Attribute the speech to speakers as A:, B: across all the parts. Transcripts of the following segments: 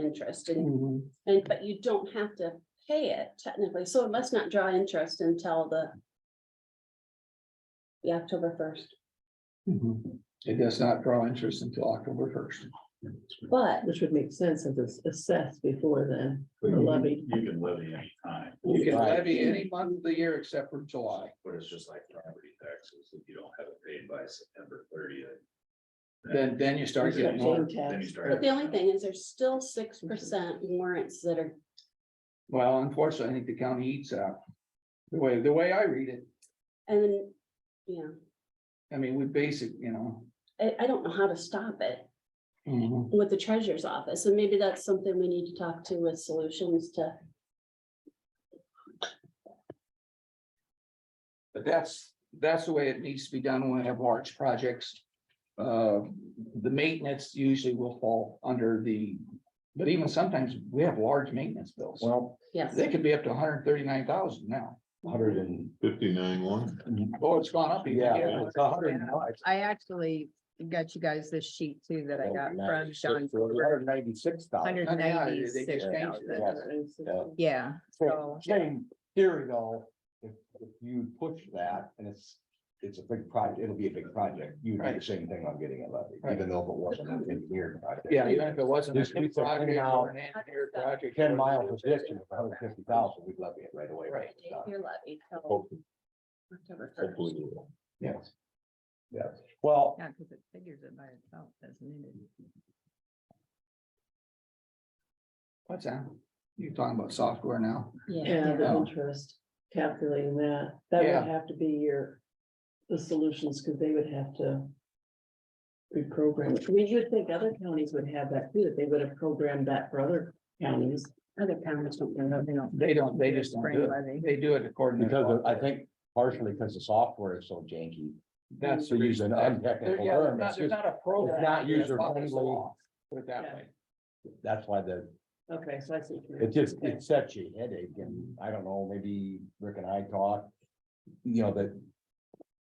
A: interest
B: Mm.
A: and, and, but you don't have to pay it technically, so it must not draw interest until the the October first,
B: It does not draw interest until October first.
A: but
C: Which would make sense if it's assessed before then,
D: But
C: or
D: you-
C: levied.
D: You can levy any time,
B: You can
E: Right.
B: levy any month of the year except for July.
D: but it's just like property taxes, if you don't have it paid by September thirtieth.
B: Then, then you start
C: Except
B: getting more.
C: for tax.
A: the only thing is there's still six percent warrants that are,
B: Well, unfortunately, I think the county eats out. The way, the way I read it,
A: and then, you know,
B: I mean, we basic, you know.
A: I, I don't know how to stop it with the treasurer's office, and maybe that's something we need to talk to with solutions to,
B: But that's, that's the way it needs to be done when we have large projects. Uh, the maintenance usually will fall under the, but even sometimes we have large maintenance bills.
E: Well,
A: yes.
B: They could be up to hundred and thirty-nine thousand now.
E: hundred and,
D: Fifty-nine one.
B: Oh, it's gone up. even,
E: yeah, it's a hundred and.
F: I actually got you guys this sheet too that I
E: Oh,
F: got from John.
E: Hundred ninety-six thousand.
F: Hundred
B: I mean, Oh, yeah, they just
F: ninety-six
B: changed it.
F: thousand. Yeah,
E: So, Same theory though, if, if you push that and it's, it's a big project, it'll be a big project, you do
B: Right.
E: the same thing on getting a levy,
B: Right.
E: even though if it wasn't an engineered project.
B: Yeah, even if it wasn't.
E: Just
B: a
E: keep the
B: project
E: thing
B: or
E: out.
B: an engineer project.
E: Ten mile position of hundred fifty thousand, we'd levy it right away. when it's done.
A: Your levy till
E: Hopefully-
A: October
E: hopefully
A: 1st.
E: we will.
B: Yes.
E: Yes, well,
F: yeah, because it figures it by itself as needed.
B: What's that? You're talking about software now?
C: Yeah, the
B: Yeah.
C: interest, calculating that, that
B: Yeah.
C: would have to be your, the solutions, because they would have to. Reprogram, it. we would think other counties would have that too, that they would have programmed that for other counties.
A: Other counties don't do that.
F: They don't.
B: They don't, they just don't do it.
F: Spring levy.
B: They do it according to.
E: because of- I
B: software.
E: think partially because the software is so janky,
B: That's.
E: to
B: the
E: use
B: reason.
E: an
B: There-
E: untechnical
B: yeah, there's
E: term,
B: not-
E: it's
B: There's
E: just-
B: not a program.
E: not
B: that
E: user
B: follows the
E: friendly.
B: law, Put it that
C: Yeah.
B: way.
E: that's why the
C: Okay, so I see. what you're-
E: It just,
C: okay.
E: it sets you headache and I don't know, maybe Rick and I talked, you know, that.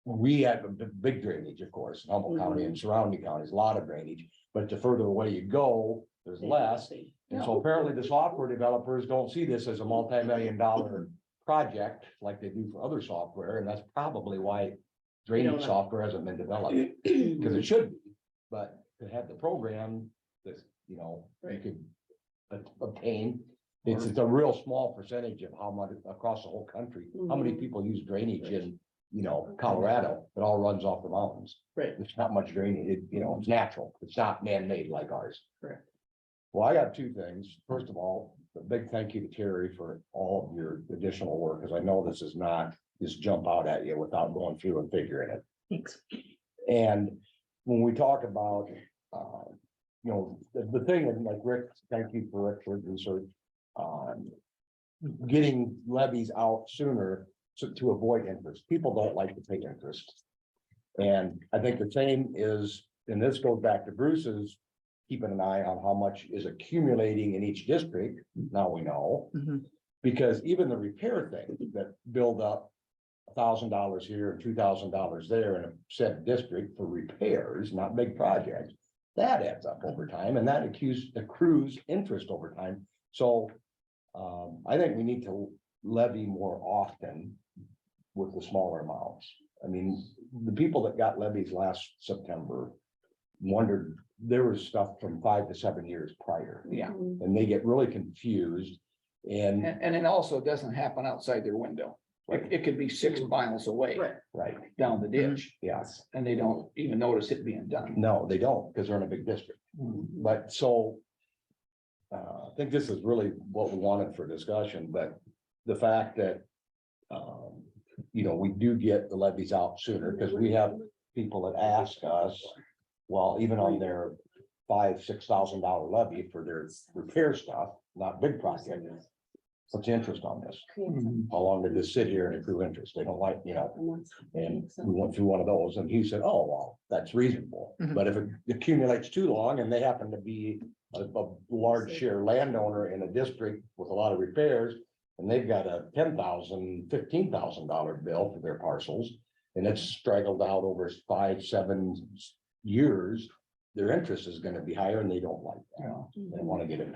E: We have a b- big drainage, of course, in Humboldt County and surrounding counties, a lot of drainage, but the further away you go, there's less. And so apparently the software developers don't see this as a multi-million dollar project like they do for other software, and that's probably why.
C: don't
E: Drainage
C: know.
E: software hasn't been developed, because it should be, but to have the program that's, you know, you
C: Right.
E: could. ob- Obtain, it's, it's a real small percentage of how much across the whole country, how many
C: Mhm.
E: people use drainage in, you know, Colorado, it all runs off the mountains.
C: Right.
E: It's not much drainage, it, you know, it's natural, it's not man-made like ours.
C: Correct.
E: Well, I got two things. First of all, a big thank you to Terry for all of your additional work, because I know this is not just jump out at you without going through and figuring it.
F: Thanks.
E: And when we talk about, uh, you know, the, the thing, and like Rick, thank you for Rick for research. Um, getting levies out sooner to, to avoid interest. People don't like to pay interest. And I think the same is, and this goes back to Bruce's, keeping an eye on how much is accumulating in each district. Now we know.
F: Mhm.
E: Because even the repair thing that build up. thousand dollars here and two thousand dollars there in a set district for repairs, not big projects. That adds up over time and that accrues accrues interest over time. So. Um, I think we need to levy more often with the smaller amounts. I mean, the people that got levies last September. Wondered, there was stuff from five to seven years prior
B: Yeah,
A: Mm.
E: and they get really confused and.
B: and, and it also doesn't happen outside their window. It, it could be six miles away
C: Right.
E: Right,
B: down the ditch
E: yes.
B: and they don't even notice it being done.
E: No, they don't, because they're in a big district, but so. Uh, I think this is really what we wanted for discussion, but the fact that. Um, you know, we do get the levies out sooner, because we have people that ask us. Well, even on their five, six thousand dollar levy for their repair stuff, not big project. What's the interest on this?
B: Mhm.
E: How long did this sit here and accrue interest? They don't like, you know, And we went through one of those and he said, oh, well, that's reasonable.
F: Mhm.
E: But if it accumulates too long and they happen to be a, a large share landowner in a district with a lot of repairs. And they've got a ten thousand, fifteen thousand dollar bill for their parcels and it's straggled out over five, seven s- years. Their interest is gonna be higher and they don't like that.
B: Yeah.
E: They wanna get it